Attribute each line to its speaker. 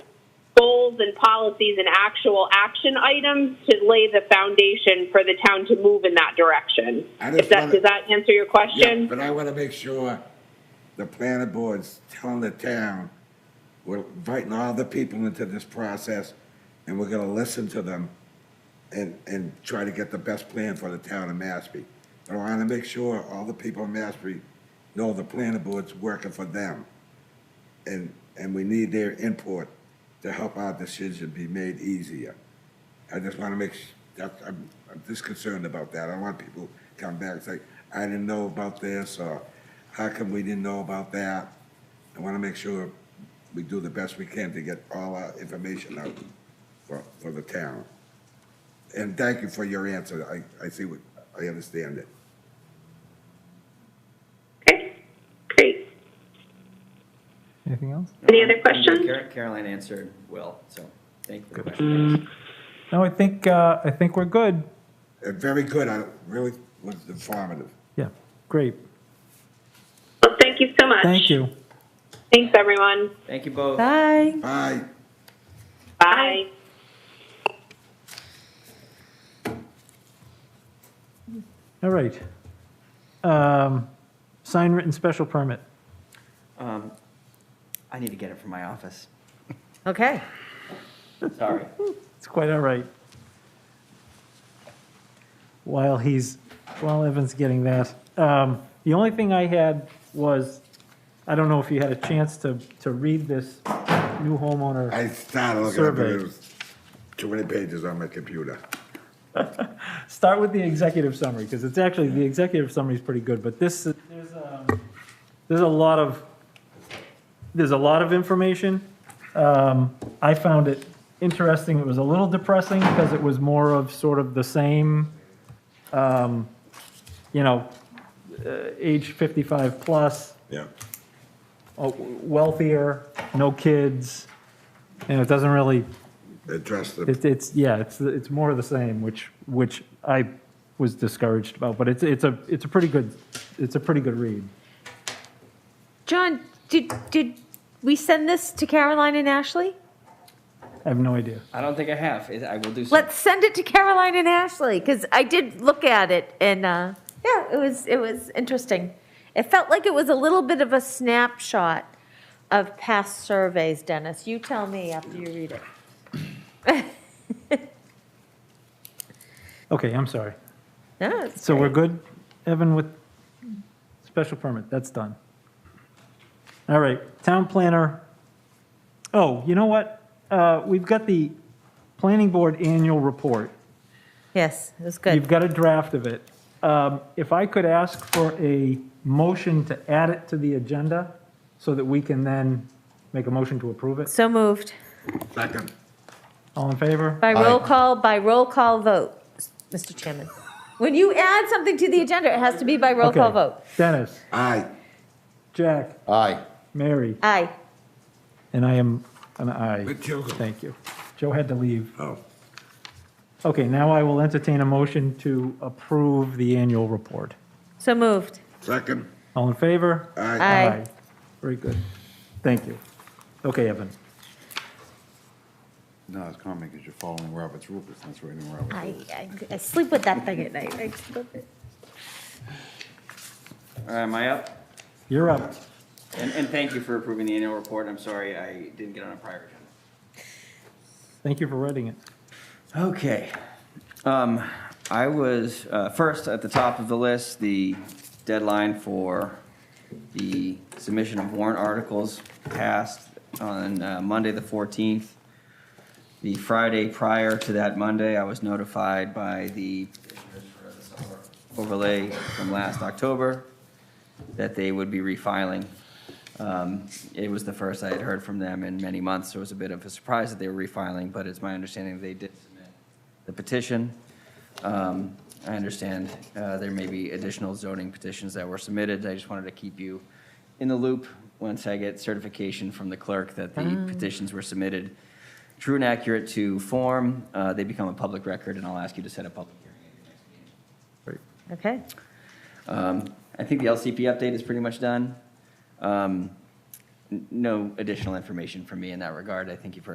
Speaker 1: and policies and actual action items to lay the foundation for the town to move in that direction.
Speaker 2: I just
Speaker 1: If that,
Speaker 2: wanna-
Speaker 1: does that answer your
Speaker 2: Yeah,
Speaker 1: question?
Speaker 2: but I want to make sure the planning board's telling the town, we're inviting all the people into this process, and we're gonna listen to them and, and try to get the best plan for the town of Mashpee. But I want to make sure all the people in Mashpee know the planning board's working for them. And, and we need their input to help our decision be made easier. I just want to make, s- that's, I'm, I'm just concerned about that. I don't want people to come back and say, I didn't know about this, or how come we didn't know about that? I want to make sure we do the best we can to get all our information out for, for the town. And thank you for your answer. I, I see what, I understand it.
Speaker 1: Okay, great.
Speaker 3: Anything else?
Speaker 1: Any other questions?
Speaker 4: Car- Caroline answered well, so thank you for the question.
Speaker 3: No, I think, uh, I think we're good.
Speaker 2: And Uh, very good. I really was informative.
Speaker 3: Yeah, great.
Speaker 1: Well, thank you so much.
Speaker 3: Thank you.
Speaker 1: Thanks, everyone.
Speaker 4: Thank you both.
Speaker 5: Bye.
Speaker 2: Bye.
Speaker 1: Bye.
Speaker 3: All right. Um, sign written special permit.
Speaker 4: Um, I need to get it from my office.
Speaker 5: Okay.
Speaker 4: Sorry.
Speaker 3: It's quite all right. While he's, while Evan's getting that, um, the only thing I had was, I don't know if you had a chance to, to read this new homeowner.
Speaker 2: I started looking up, but
Speaker 3: Survey.
Speaker 2: it was too many pages on my computer.
Speaker 3: Start with the executive summary, because it's actually, the executive summary is pretty good, but this, there's, um, there's a lot of, there's a lot of information. Um, I found it interesting, it was a little depressing, because it was more of sort of the same, um, you know, uh, age 55 plus,
Speaker 2: Yeah.
Speaker 3: uh, wealthier, no kids, and it doesn't really
Speaker 2: Address the,
Speaker 3: it's, it's, yeah, it's, it's more of the same, which, which I was discouraged about, but it's, it's a, it's a pretty good, it's a pretty good read.
Speaker 5: John, did, did we send this to Caroline and Ashley?
Speaker 3: I have no idea.
Speaker 4: I don't think I have. It- I will do so.
Speaker 5: Let's send it to Caroline and Ashley, because I did look at it, and, uh, yeah, it was, it was interesting. It felt like it was a little bit of a snapshot of past surveys, Dennis. You tell me after you read it.
Speaker 3: Okay, I'm sorry.
Speaker 5: No, it's
Speaker 3: So we're
Speaker 5: great.
Speaker 3: good, Evan, with special permit, that's done. All right, town planner. Oh, you know what? Uh, we've got the planning board annual report.
Speaker 5: Yes, it was
Speaker 3: You've
Speaker 5: good.
Speaker 3: got a draft of it. Um, If I could ask for a motion to add it to the agenda so that we can then make a motion to approve it.
Speaker 5: So moved.
Speaker 2: second,
Speaker 3: All in favor?
Speaker 5: By roll call, by roll call vote, Mr. Chairman. When you add something to the agenda, it has to be by roll call
Speaker 3: Okay.
Speaker 5: vote.
Speaker 3: Dennis,
Speaker 2: aye.
Speaker 3: Jack,
Speaker 6: Aye.
Speaker 3: Mary,
Speaker 5: Aye.
Speaker 3: and I am an aye.
Speaker 2: Good joke.
Speaker 3: Thank you. Joe had to leave.
Speaker 2: Oh,
Speaker 3: Okay, now I will entertain a motion to approve the annual report.
Speaker 5: So moved.
Speaker 2: second,
Speaker 3: All in favor?
Speaker 2: aye.
Speaker 5: Aye.
Speaker 3: Very good. Thank you. Okay, Evan.
Speaker 6: No, it's common because you're following Robert's rules. That's right in Robert's
Speaker 5: I,
Speaker 6: rules.
Speaker 5: I, I sleep with that thing at night. I just love it.
Speaker 4: All right, am I up?
Speaker 3: You're up.
Speaker 4: And, and thank you for approving the annual report. I'm sorry I didn't get on a prior agenda.
Speaker 3: Thank you for writing it.
Speaker 4: Okay. Um, I was, uh, first at the top of the list, the deadline for the submission of warrant articles passed on uh, Monday, the 14th. The Friday prior to that Monday, I was notified by the overlay from last October that they would be refiling. Um, It was the first I had heard from them in many months, so it was a bit of a surprise that they were refiling, but it's my understanding they did submit the petition. Um, I understand uh, there may be additional zoning petitions that were submitted. I just wanted to keep you in the loop once I get certification from the clerk that the petitions were submitted true and accurate to form. Uh, They become a public record, and I'll ask you to set a public hearing.
Speaker 5: Okay.
Speaker 4: Um, I think the LCP update is pretty much done. Um, n- No additional information from me in that regard. I think you've heard